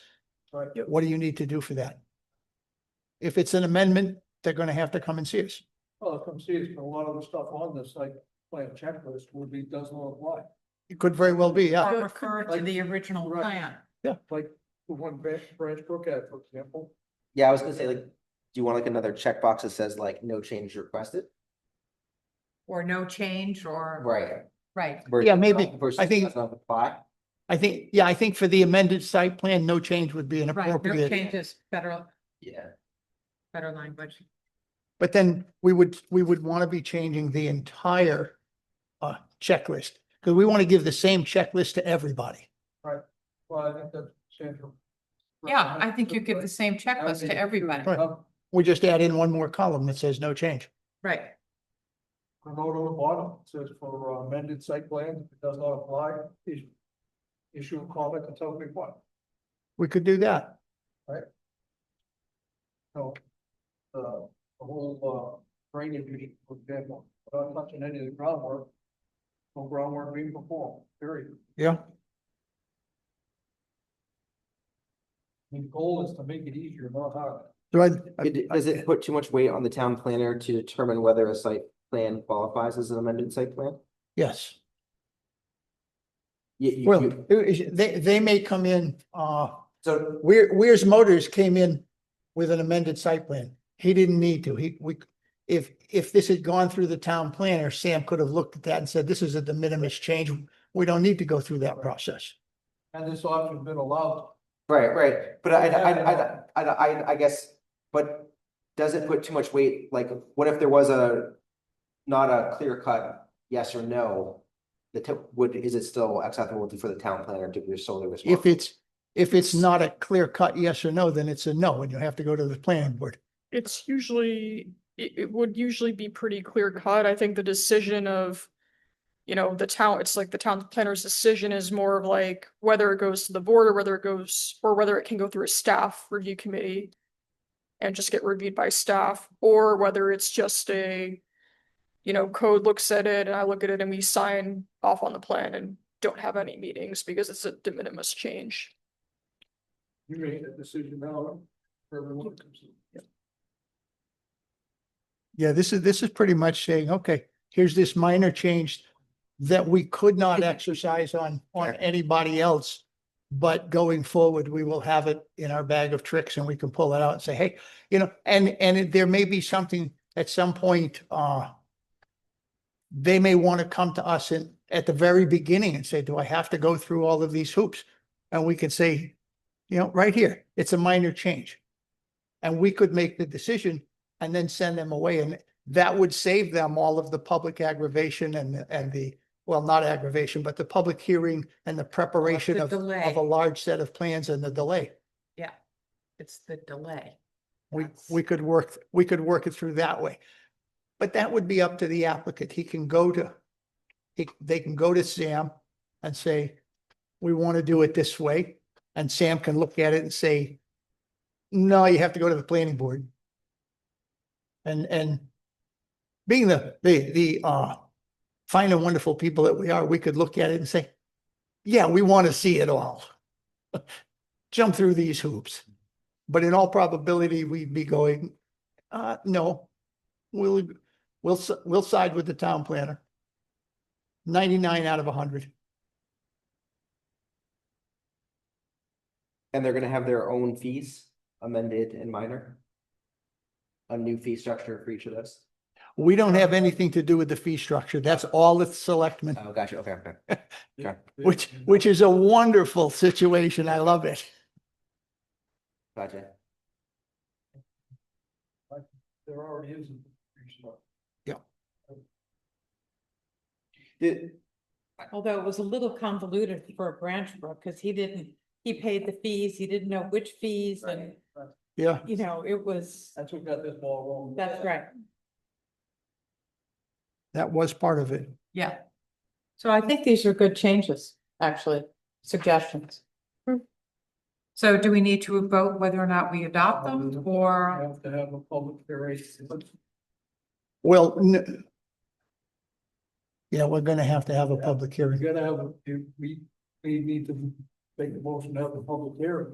Right. What do you need to do for that? If it's an amendment, they're gonna have to come and see us. Well, come see, it's a lot of the stuff on this, like, plan checklist would be, does not apply. It could very well be, yeah. Or refer to Like- the original Right. plan. Like, the one Branch, Branch Brook had, for example, Yeah, I was gonna say like, do you want like another checkbox that says like no change requested? Or no change or, Right. right, versus- Yeah, maybe. versus I think- does not apply. I think, yeah, I think for the amended site plan, no change would be an right, no appropriate. changes, better, Yeah, better language. But then we would, we would want to be changing the entire uh, checklist, because we want to give the same checklist to everybody. well, I think that's. Sandra. Yeah, I think you give the same That would checklist be to everybody, Right. Up, We just add in one more column that says no change. right, a note on the bottom, it says for uh, amended site plan, if it does not apply, issue. Issue a comment and tell me what, We could do that. so. The, uh, the whole, uh, drainage, meeting, for example, without touching any of the groundwork. No groundwork being performed, period. Yeah. I mean, The goal is to make it easier, not harder. Do I, It- does it put too much weight on the town planner to determine whether a site plan qualifies as an amended site plan? yes. You- you- Well, you- it- it- they, they may come in, uh, so, Weir, Weir's Motors came in with an amended site plan. He didn't need to. He, we, if, if this had gone through the town planner, Sam could have looked at that and said, this is a de minimis change. We don't need to go through that process. And this option's been allowed. right, right, but I, I, I, I, I, I guess, but does it put too much weight, like, what if there was a not a clear cut, yes or no? The, to- would, is it still acceptable for the town planner to be solely responsible? If it's, if it's not a clear cut yes or no, then it's a no, and you have to go to the planning board. it's usually, it, it would usually be pretty clear cut. I think the decision of, you know, the town, it's like the town planner's decision is more of like whether it goes to the board or whether it goes, or whether it can go through a staff review committee and just get reviewed by staff, or whether it's just a, you know, code looks at it and I look at it and we sign off on the plan and don't have any meetings because it's a de minimis change. You made a decision now, for everyone comes in. Yeah, this is, this is pretty much saying, okay, here's this minor change that we could not exercise on, on anybody else. But going forward, we will have it in our bag of tricks and we can pull it out and say, hey, you know, and, and it- there may be something at some point, uh, they may want to come to us in, at the very beginning and say, do I have to go through all of these hoops? And we can say, you know, right here, it's a minor change. And we could make the decision and then send them away. And that would save them all of the public aggravation and, and the, well, not aggravation, but the public hearing and the preparation the of, of delay. a large set of plans and the delay. it's the delay. We, That's- we could work, we could work it through that way. But that would be up to the applicant. He can go to, he, they can go to Sam and say, we want to do it this way. And Sam can look at it and say, no, you have to go to the planning board. And, and being the, the, the, uh, fine and wonderful people that we are, we could look at it and say, yeah, we want to see it all. Jump through these hoops. But in all probability, we'd be going, uh, no, we'll, we'll, s- we'll side with the town planner. Ninety-nine out of hundred. And they're gonna have their own fees, amended and minor? A new fee structure for each of those? We don't have anything to do with the fee structure. That's all the selectmen, Oh, gotcha, okay, okay. Okay. which, which is a wonderful situation. I love it. gotcha. There already is. a reason. Did, Although it was a little convoluted for Branch Brook, because he didn't, he paid the fees, he didn't know which fees and, Yeah. you know, it was, That's what got this ball rolling. that's right. That was part of it. Yeah. So I think these are good changes, actually, suggestions. Hmm. So do we need to vote whether or not we adopt them You or have to have a public hearing. Well, n- yeah, we're gonna have to have a public hearing. You're gonna have, a- you- we, we need to make the motion to have a public hearing.